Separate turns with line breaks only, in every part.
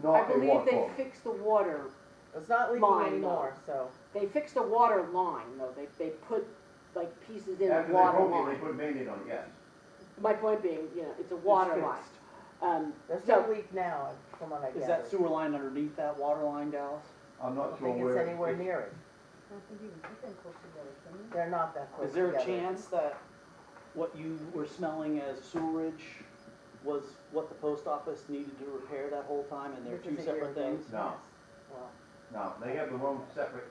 I
not a
believe
walk
they
home.
fixed the water,
It's not leaking
Mine,
anymore, so.
they fixed the water line, though, they, they put like pieces in the
After they
water
broke it, they
line.
put Band-Aid on it, yes.
My point being, you know, it's a water line.
fixed.
Um,
There's
So-
no leak now, from what I
Is that
gathered.
sewer line underneath that water line, Dallas?
I'm
I
not
don't
sure
think
where.
it's anywhere near it.
I think you can put them close together, can you?
They're not that close
Is there
together.
a chance that what you were smelling as sewerage was what the post office needed to repair that whole time and they're
Which
two
is a year
separate
ago.
things?
No.
Well,
No, they have their own separate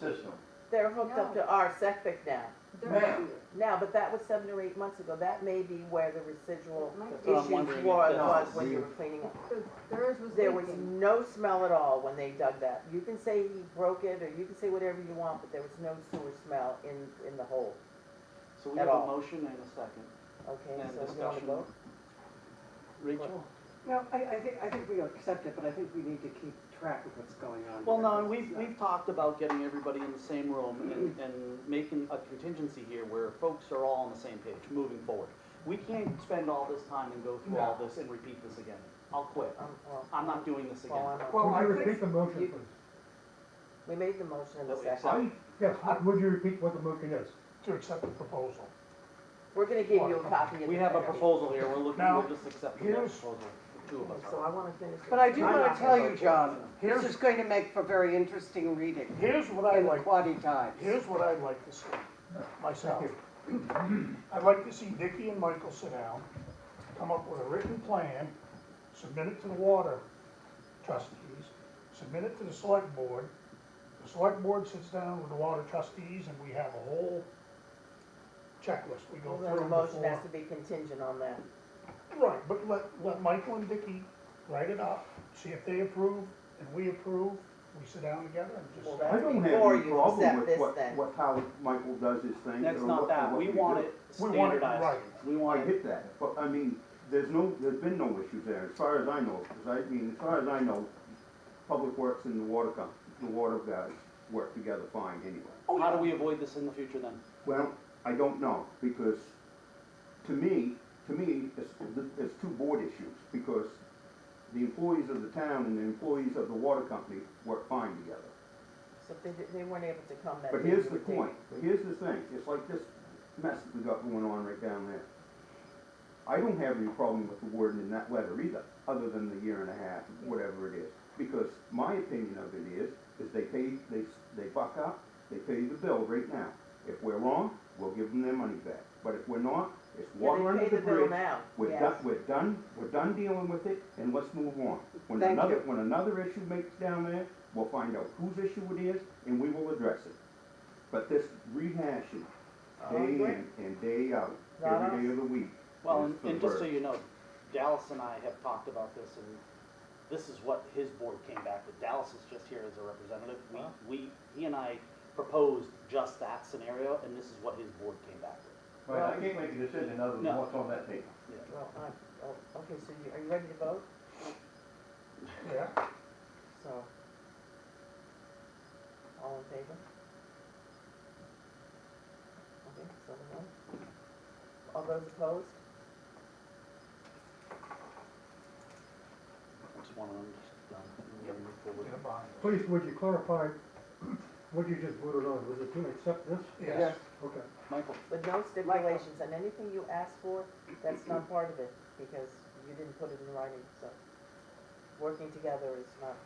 system.
They're hooked up
No.
to our septic now.
They're
Ma'am.
not here.
Now, but that was seven or eight months ago. That may be where the residual
It might
That's what I'm
issues
wondering
were,
if
was
that's-
when you were cleaning up.
So Theirs was
There was
leaking.
no smell at all when they dug that. You can say he broke it, or you can say whatever you want, but there was no sewer smell in, in the hole,
So we
At
have a
all.
motion and a second
okay?
and
So you want to
discussion.
vote?
Rachel?
No, I, I think, I think we accept it, but I think we need to keep track of what's going on.
Well, no, and
because
we've,
it's
we've talked about getting everybody in the same room and, and making a contingency here where folks are all on the same page, moving forward. We can't spend all this time and go through all this and repeat this again. I'll quit.
Um, well,
I'm not doing this again.
well, I'm-
Would
I
you
think
repeat the motion,
you-
please?
We made the motion in
That
a
we
second.
accept.
Yes, would you repeat what the motion is?
to accept the proposal.
We're gonna give you a copy of the.
We have a
paper.
proposal here, we're looking,
Now,
we're just accepting that
here's-
proposal, the two of us.
So I wanna finish.
But I do
this.
I'm
want
not
to tell
gonna
you,
vote
John,
it.
this is going to make for very interesting reading
Here's what I
in the
like,
Quaddy Times.
here's what I'd like to see, myself. I'd like to see Dicky and Michael sit down, come up with a written plan, submit it to the water trustees, submit it to the select board. The select board sits down with the water trustees and we have a whole checklist we go
Well, then The
through
motion
before.
has to be contingent on that.
Right, but let, let Michael and Dicky write it up, see if they approve and we approve, we sit down together and just.
Well,
say-
that-
I don't have
Before
any
you
problem
accept
with
this
what,
then.
what, how Michael does his thing.
That's
or
not
what-
that,
what
we
do.
want it
We want it
standardized. We
I
want it,
get that, but I mean, there's no, there's been no issue there, as far as I know, 'cause I mean, as far as I know, Public Works and the water com, the water guys work together fine anyway.
how do we avoid this in the future then?
Well, I don't know, because to me, to me, it's, it's two board issues, because the employees of the town and the employees of the water company work fine together.
So if they, did- they weren't able to come that.
But
day,
here's
you
the
would think-
point, here's the thing, it's like this mess that we got going on right down there. I don't have any problem with the wording in that letter either, other than the year and a half, whatever it is. Because my opinion of it is, is they pay, they, they buck up, they pay the bill right now. If we're wrong, we'll give them their money back. But if we're not, it's
Yeah,
water
they
under
pay
the
the bill
bridge.
now,
We're done,
yes.
we're done, we're done dealing with it, and let's move on. When
Thank
another,
you.
when another issue makes down there, we'll find out whose issue it is, and we will address it. But this rehashing,
Oh,
day
yeah.
in and day out,
Not
every day
us.
of the week.
Well,
is
and,
for
and just so
birds.
you know, Dallas and I have talked about this and this is what his board came back with. Dallas is just here as a representative. We,
Wow.
we, he and I proposed just that scenario and this is what his board came back with.
Right, I can't make a decision other than
No.
what's on that table.
Well, I, oh, okay, so you, are you ready to vote?
Yeah.
So. All in favor? Okay, so the one. All those opposed?
Just one of them, just done. and we're gonna move forward.
Get a bond.
Please, would you clarify what you just voted on? Was it to accept this?
Yes.
Okay.
Michael,
With no stipulations, and anything you ask for, that's not part of it, because you didn't put it in writing, so. Working together is not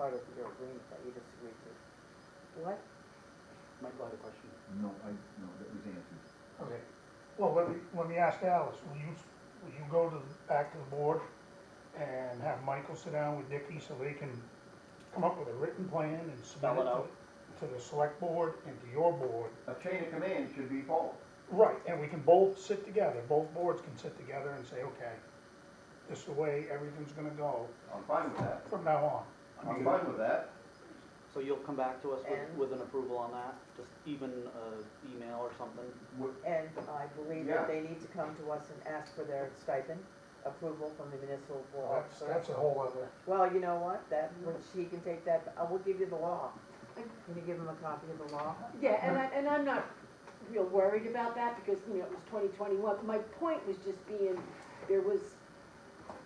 part of your agreement that you disagreed to. What?
Michael had a question.
No, I, no, that was answered.
Okay, well, let me, let me ask Alice, will you, will you go to, the- back to the board and have Michael sit down with Dicky so they can come up with a written plan and submit
Spell
it
it out.
to, to the select board and to your board?
A chain of command should be followed.
Right, and we can both sit together, both boards can sit together and say, okay, this is the way everything's gonna go
I'm fine with that.
from now on.
I'm fine with that.
So you'll come back to us
And-
with, with an approval on that, just even uh email or something?
And I believe that
Yeah.
they need to come to us and ask for their stipend approval from the municipal board.
That's, that's a whole other,
Well, you know what, that, she can take that, I will give you the law. Can you give him a copy of the law?
Yeah, and I, and I'm not real worried about that because, you know, it was twenty twenty-one. My point was just being, there was